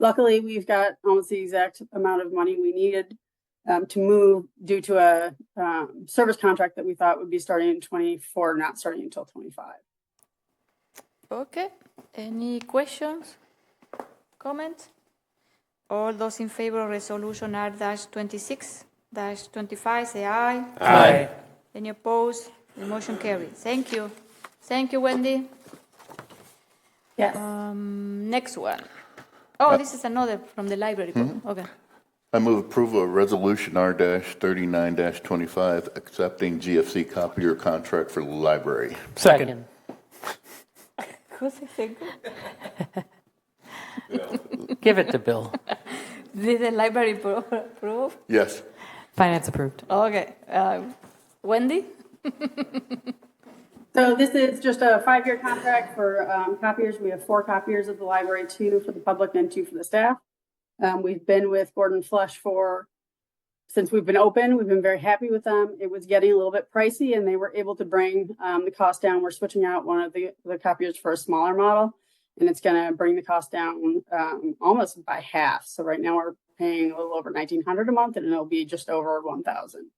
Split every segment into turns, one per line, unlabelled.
Luckily, we've got almost the exact amount of money we needed um, to move due to a um, service contract that we thought would be starting in 24, not starting until 25.
Okay. Any questions? Comments? All those in favor of resolution R dash twenty-six dash twenty-five, say aye.
Aye.
Any opposed? The motion carried. Thank you. Thank you, Wendy.
Yes.
Um, next one. Oh, this is another from the library. book. Okay.
I move approval of Resolution R-39-25, accepting GFC copier contract for the library.
Second. Give it to Bill.
Did the library pro- approve?
Yes.
Finance approved.
Okay. Uh, Wendy?
So this is just a five-year contract for um, copiers. We have four copiers at the library, two for the public and two for the staff. Um, We've been with Gordon Flush for, since we've been open, we've been very happy with them. It was getting a little bit pricey and they were able to bring um, the cost down. We're switching out one of the the copiers for a smaller model. And it's going to bring the cost down um, almost by half. So right now we're paying a little over 1,900 a month and it'll be just over 1,000.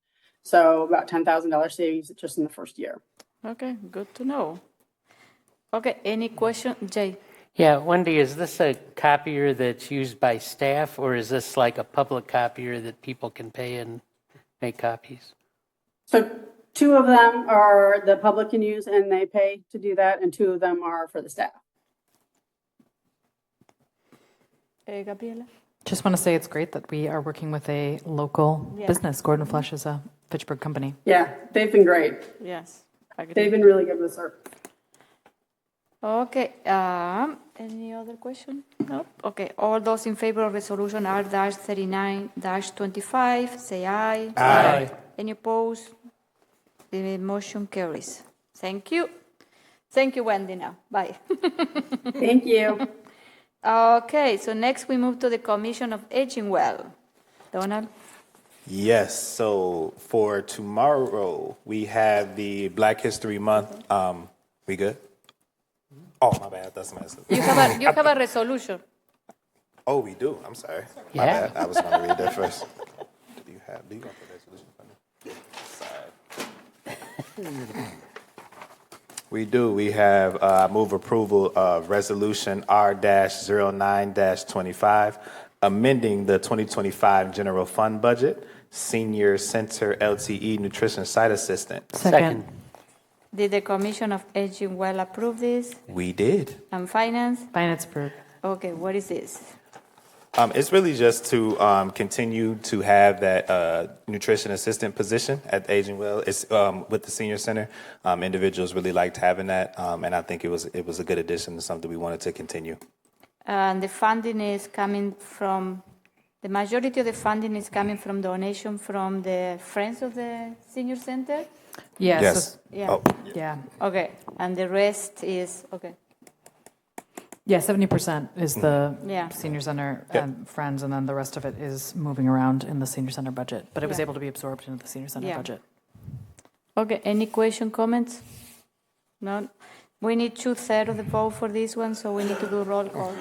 So about $10,000 savings just in the first year.
Okay, good to know. Okay, any question? Jay?
Yeah, Wendy, is this a copier that's used by staff, or is this like a public copier that people can pay and make copies?
So two of them are the public can use and they pay to do that, and two of them are for the staff.
Uh, Gabriela?
Just want to say it's great that we are working with a local business. Gordon Flush is a Fitchburg company.
Yeah, they've been great.
Yes.
They've been really good with service.
Okay, um, any other question? No? Okay, all those in favor of resolution R dash thirty-nine dash twenty-five, say aye.
Aye.
Any opposed? The motion carries. Thank you. Thank you, Wendy, now. Bye.
Thank you.
Okay, so next we move to the Commission of Aging Well. Donald?
Yes, so for tomorrow, we have the Black History Month. Um, we good? Oh, my bad. That's my.
You have a, you have a resolution.
Oh, we do. I'm sorry. My
Yeah.
bad. I was going to read that first. Do you have? Do you want the resolution for me? Sorry. We do. We have uh, move approval of resolution R-09-25, amending the 2025 general fund budget, senior center LTE nutrition site assistant.
Second.
Did the Commission of Aging Well approve this?
We did.
And Finance?
Finance approved.
Okay, what is this?
Um, it's really just to um, continue to have that uh, nutrition assistant position at Aging Well. It's um, with the senior center. Um, individuals really liked having that, um, and I think it was it was a good addition and something we wanted to continue.
And the funding is coming from, the majority of the funding is coming from donation from the Friends of the Senior Center?
Yeah, so-
Yes.
Yeah.
Oh,
Yeah.
Okay, and the rest is, okay,
Yeah, 70% is the
Mm-hmm. Yeah.
senior center um, friends, and then the rest of it is moving around in the senior center budget. But it was
Yeah.
able to be absorbed into the senior center
Yeah.
budget.
okay, any question, comments? None? We need two-thirds of the vote for this one, so we need to do roll call.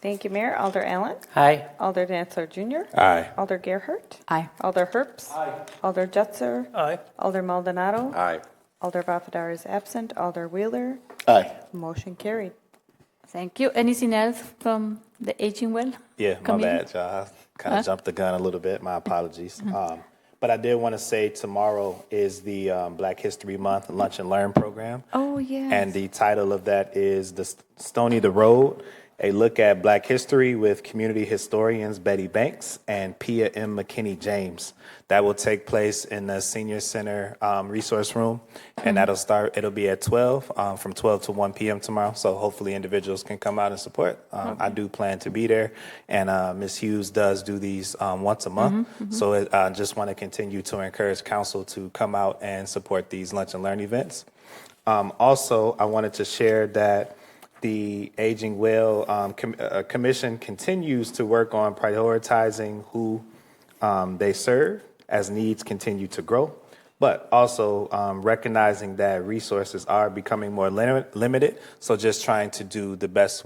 Thank you, Mayor. Alder Allen.
Aye.
Alder Dantzler Jr.
Aye.
Alder Gerhart.
Aye.
Alder Herps. Aye. Alder Jutser.
Aye.
Alder Maldonado.
Aye.
Alder Bafadar is absent. Alder Wheeler.
Aye.
Motion carried.
Thank you. Anything else from the Aging Well?
Yeah, my
Committee?
bad, y'all. Kind of jumped the gun a little bit. My apologies.
Mm-hmm.
Um, but I did want to say tomorrow is the um, Black History Month Lunch and Learn program.
Oh, yes.
And the title of that is The St- Stony the Road, a look at Black history with community historians Betty Banks and Pia M. McKinney James. That will take place in the Senior Center um, Resource Room, and that'll start, it'll be at 12, um, from 12 to 1 p.m. tomorrow. So hopefully individuals can come out and support. Um, I do plan to be there, and uh, Ms. Hughes does do these um, once a month. So it- I just want to continue to encourage council to come out and support these lunch and learn events. Um, also, I wanted to share that the Aging Well um, com- uh, Commission continues to work on prioritizing who um, they serve as needs continue to grow, but also um, recognizing that resources are becoming more lim- limited. So, just trying to do the best